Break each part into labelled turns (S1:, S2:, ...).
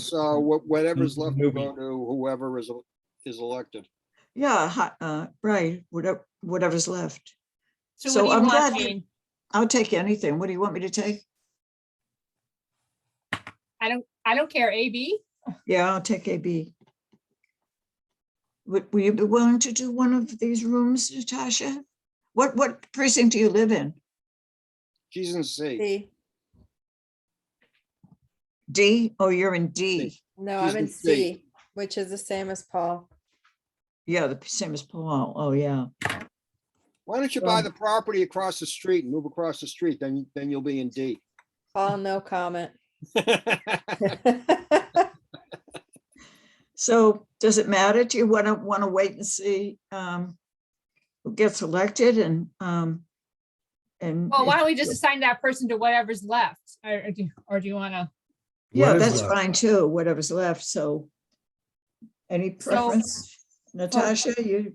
S1: So wha- uh, whatever's left will go
S2: Movie.
S1: to whoever is, is elected.
S3: Yeah, hi- uh, right, whatever, whatever's left.
S4: So
S3: So
S4: what do
S3: I'm
S4: you want,
S3: glad you-
S4: Jane?
S3: I'll take anything. What do you want me to take?
S4: I don't, I don't care, AB.
S3: Yeah, I'll take AB. Would, will you be willing to do one of these rooms, Natasha? What, what precinct do you live in?
S1: She's in C.
S5: C.
S3: D? Oh, you're in D.
S5: No,
S1: She's
S5: I'm in
S1: in C.
S5: C, which is the same as Paul.
S3: Yeah, the same as Paul. Oh, yeah.
S1: Why don't you buy the property across the street and move across the street, then, then you'll be in D.
S5: Paul, no comment.
S3: So does it matter? Do you want to, want to wait and see um, who gets elected and, um, and?
S4: Well, why
S3: if-
S4: don't we just assign that person to whatever's left? Or or do, or do you want to?
S3: Yeah,
S2: What is
S3: that's
S2: left?
S3: fine too, whatever's left, so. Any
S4: So-
S3: preference? Natasha, you,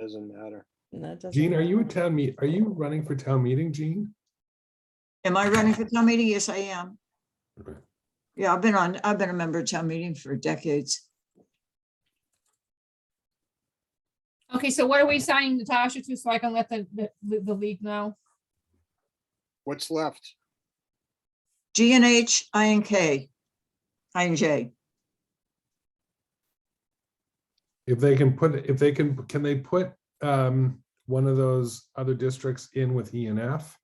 S1: Doesn't matter.
S5: That doesn't
S2: Gene, are you a
S5: matter.
S2: town meet, are you running for town meeting, Gene?
S3: am I running for town meeting? Yes, I am.
S2: Okay.
S3: Yeah, I've been on, I've been a member of town meeting for decades.
S4: Okay, so what are we assigning Natasha to so I can let the, the, the league know?
S1: What's left?
S3: G and H, I and K, I and J.
S2: If they can put, if they can, can they put um one of those other districts in with E and F?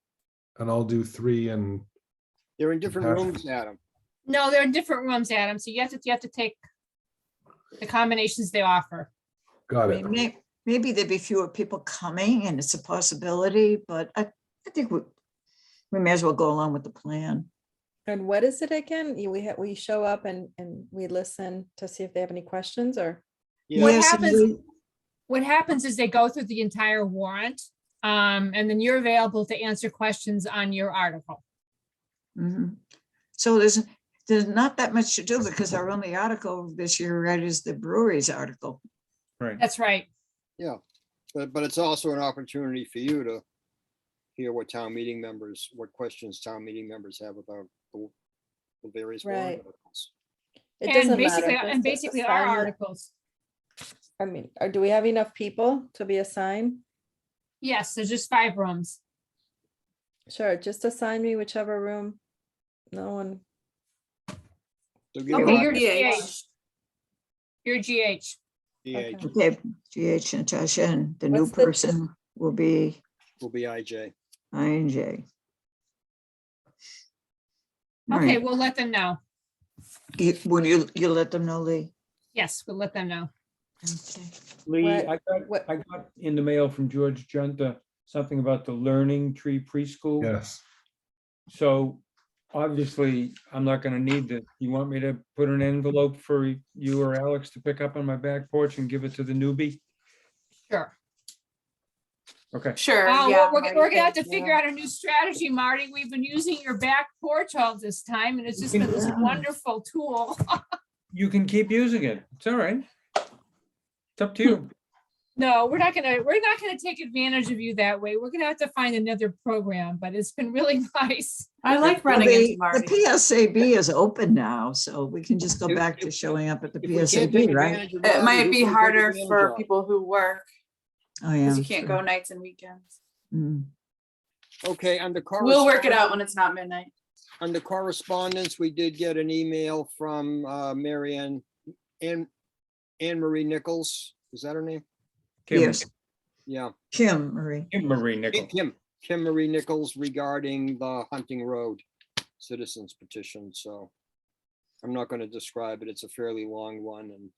S2: And I'll do three and,
S1: They're in different rooms, Adam.
S4: No, they're in different rooms, Adam, so you have to, you have to take the combinations they offer.
S3: I
S2: got it.
S3: mean, may- Maybe there'd be fewer people coming and it's a possibility, but I, I think we, we may as well go along with the plan.
S5: And what is it again? You- We, ha- we show up and, and we listen to see if they have any questions or?
S4: What
S1: Yeah,
S3: Yes, and
S4: happens-
S3: you-
S4: What happens is they go through the entire warrant, um, and then you're available to answer questions on your article.
S3: Mhm. So there's, there's not that much to do because our only article this year, right, is the breweries article.
S4: That's right.
S1: but, but it's also an opportunity for you to hear what town meeting members, what questions town meeting members have about the the various warrant
S5: Right.
S1: articles.
S5: it
S4: And
S5: doesn't matter,
S4: basically,
S5: just
S4: and
S5: the- the
S4: basically our
S5: sign-
S4: articles.
S5: I mean, or do we have enough people to be assigned?
S4: Yes, there's just five rooms.
S5: Sure, just assign me whichever room. No one,
S1: So give
S4: Okay,
S1: them
S4: you're
S1: a-
S4: GH. You're GH.
S1: DH
S5: okay.
S3: Okay, GH Natasha and the new
S5: What's the-
S3: person will be
S1: will be IJ.
S3: INJ. All
S4: Okay,
S3: right,
S4: we'll let them know.
S3: you- will you, you let them know, Lee?
S4: Yes, we'll let them know.
S3: Okay.
S6: Lee,
S5: What-
S6: I got,
S5: what-
S6: I got in the mail from George Junta, something about the Learning Tree Preschool.
S2: Yes,
S6: So obviously, I'm not gonna need this. You want me to put an envelope for you or Alex to pick up on my back porch and give it to the newbie?
S4: Sure.
S6: Okay,
S7: Sure.
S4: Oh,
S7: yeah,
S4: we're, we're
S7: Marty,
S4: we're gonna have
S7: thank
S4: to
S7: you.
S4: figure out a new strategy, Marty. We've been using your back porch all this time and it's just been this
S3: Yeah.
S4: wonderful tool.
S6: you can keep using it. It's all right. It's up to you.
S4: No, we're not gonna, we're not gonna take advantage of you that way. We're gonna have to find another program, but it's been really nice.
S7: I like
S3: Well,
S7: running
S3: the-
S7: into Marty.
S3: The PSAB is back now, so we can just go
S1: If-
S3: back to
S1: if-
S3: showing up at the
S1: If we can't take
S3: PSAB, right?
S1: advantage of
S7: It
S1: Rotary,
S7: might
S1: who
S7: be
S1: can take
S7: harder
S1: advantage
S7: for
S1: of?
S7: people who work
S3: Oh,
S7: because
S3: yeah.
S7: you can't go nights and weekends.
S3: Mm.
S1: Okay, under.
S7: We'll work it out when it's not midnight.
S1: Under correspondence, we did get an email from uh, Mary Ann, Ann, Anne Marie Nichols, is that her name?
S6: Kim-
S3: Yes,
S1: Yeah,
S3: Kim, Marie.
S6: Kim Marie Nichols.
S1: Kim, Kim Marie Nichols regarding the Hunting Road citizens petition, so I'm not going to describe it, it's a fairly long one and,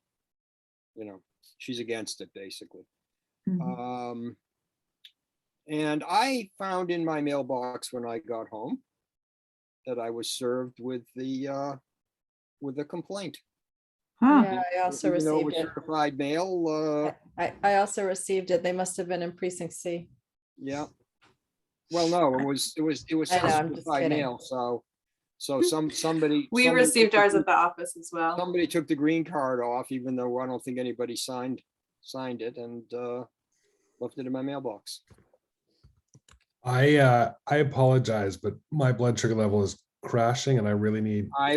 S1: you know, she's against it, basically.
S3: Mhm.
S5: Mm-hmm.
S1: Um, and I found in my mailbox when I got home that I was served with the, uh, with a complaint.
S4: Ah.
S3: Huh.
S5: yeah, I also
S1: Even though it was
S5: received it.
S1: Certified mail, uh,
S5: I- I, I also received it. They must have been in precinct C.
S1: yeah. Well, no, it was, it was, it was
S5: I know, I'm just
S1: certified
S5: kidding.
S1: mail, so, so some, somebody.
S7: We
S1: somebody
S7: received
S1: took
S7: ours
S1: the-
S7: at the office as well.
S1: Somebody took the green card off, even though I don't think anybody signed, signed it and, uh, left it in my mailbox.
S2: I uh, I apologize, but my blood sugar level is crashing and I really need
S1: I